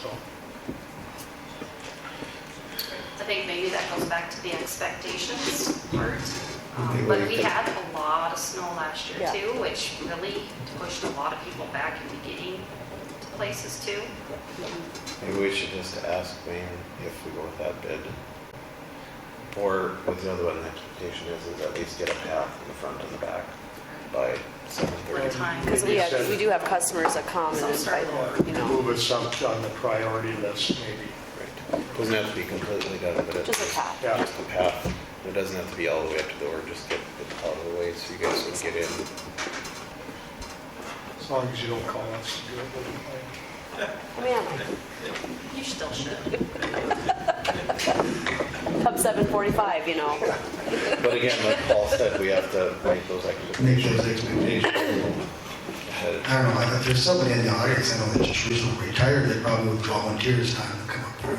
so. I think maybe that goes back to the expectations part. Okay, Um, But well, we okay. had a lot of snow last year Yeah. too, which really pushed a lot of people back into getting to places too. Maybe we should just ask Wayne if we go with that bid. Or with the other one, the expectation is, is at least get a path in the front and the back by seven What thirty. time? Because we You have, said- we do have customers that come and Some invite, circle. you know, Move it some on the priority list, maybe. Right. Doesn't have to be completely done, but it's. just a path. Yeah. Just a path. It doesn't have to be all the way up to the door, just get it out of the way so you guys can get in. As long as you don't call us to do it, we'll be fine. I mean, I'm You still should. like, come 7:45, you know. But again, like Paul said, we have to make those Make those expectations expectations. ahead of I don't know, I- if there's somebody in the audience, I know that just recently retired, they probably would volunteer his time to come up here.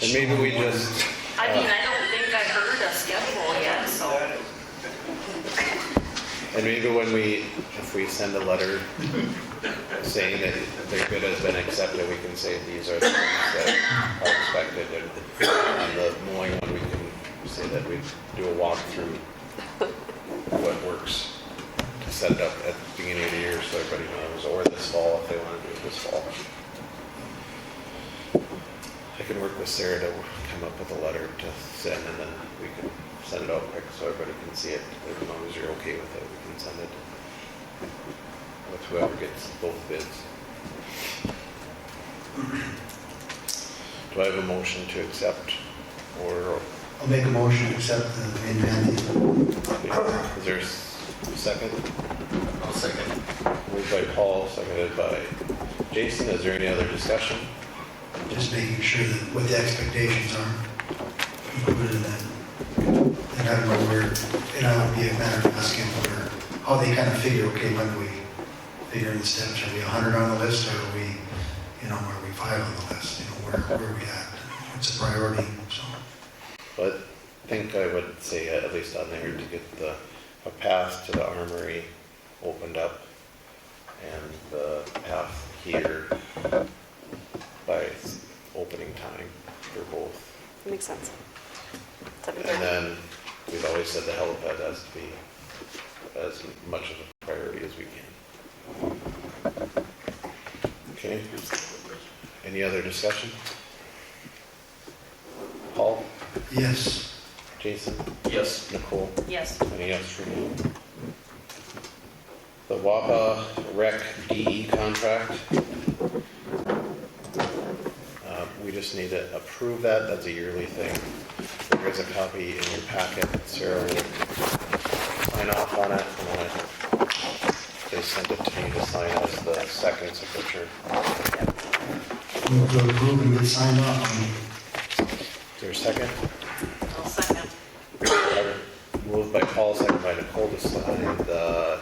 And maybe we just, I mean, I don't think I heard a schedule yet, so and maybe when we, if we send a letter saying that the bid has been accepted, we can say these are the things that are expected. And on the mowing one, we can say that we do a walkthrough what works to set it up at the beginning of the year so everybody knows, or this fall if they want to do it this fall. I can work with Sarah to come up with a letter to send and then we can send it out quick so everybody can see it. As long as you're okay with it, we can send it with whoever gets both bids. Do I have a motion to accept or, I'll make a motion to accept the Van Vandy. is there a s- second? I'll second. Moved by Paul, seconded by Jason. Is there any other discussion? just making sure that what the expectations are included in that. And I don't know where, and I would be a matter of asking where, how they kind of figure, okay, when do we figure in the steps? Are we 100 on the list or are we, you know, are we five on the list? You know, where, where are we at? It's a priority, so. But I think I would say uh, at least on there to get the, a path to the armory opened up and the path here by s- opening time for both. Makes sense. And 7:30. then we've always said the helipad has to be as much of a priority as we can. Okay? Any other discussion? Paul, Yes, Jason, Yes. Nicole, yes. any else for me? The WAPA rec DE contract. Uh, We just need to approve that, that's a yearly thing. There is a copy in your packet, Sarah will sign off on it, and then they send it to me to sign as the second signature. move to approve and we'll sign off on Is there a second? I'll second. Moved by Paul, second by Nicole to sign the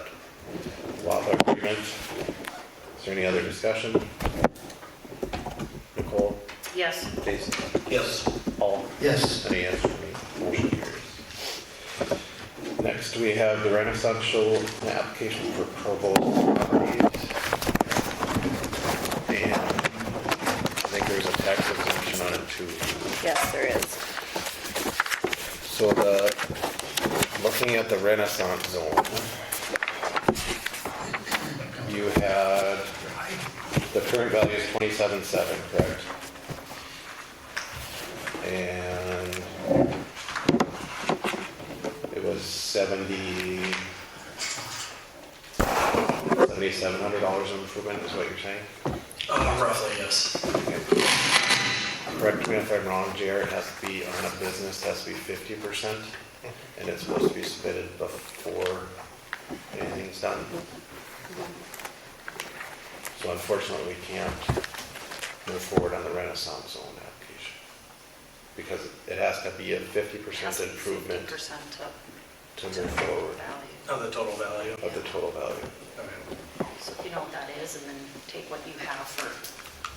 WAPA agreement. Is there any other discussion? Nicole, Yes. Jason? Yes. Paul? Yes. Any answer for me? Motion carries. Next, we have the Renaissance Show application for Provo properties. And I think there's a tax exemption on it too. Yes, there is. So the, looking at the Renaissance zone, you had, the current value is twenty-seven seven, correct? And it was seventy, seventy-seven hundred dollars improvement is what you're saying? Uh, roughly, yes. Correct me if I'm wrong, JR, it has to be on a business, it has to be fifty percent, and it's supposed to be submitted before anything's done. So unfortunately, we can't move forward on the Renaissance Zone application, because it has to be a fifty percent improvement Percent to of move forward value. Of the total value. of the total value. Okay. So if you know what that is, and then take what you have for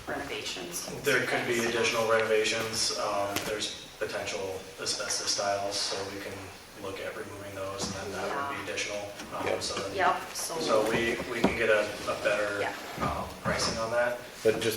renovations. There could be additional renovations. Um, There's potential asbestos tiles, so we can look at removing those, and then that would be additional. um, Yep. so then- Yep, so. So we, we can get a, a better Yeah. um, pricing on that. But just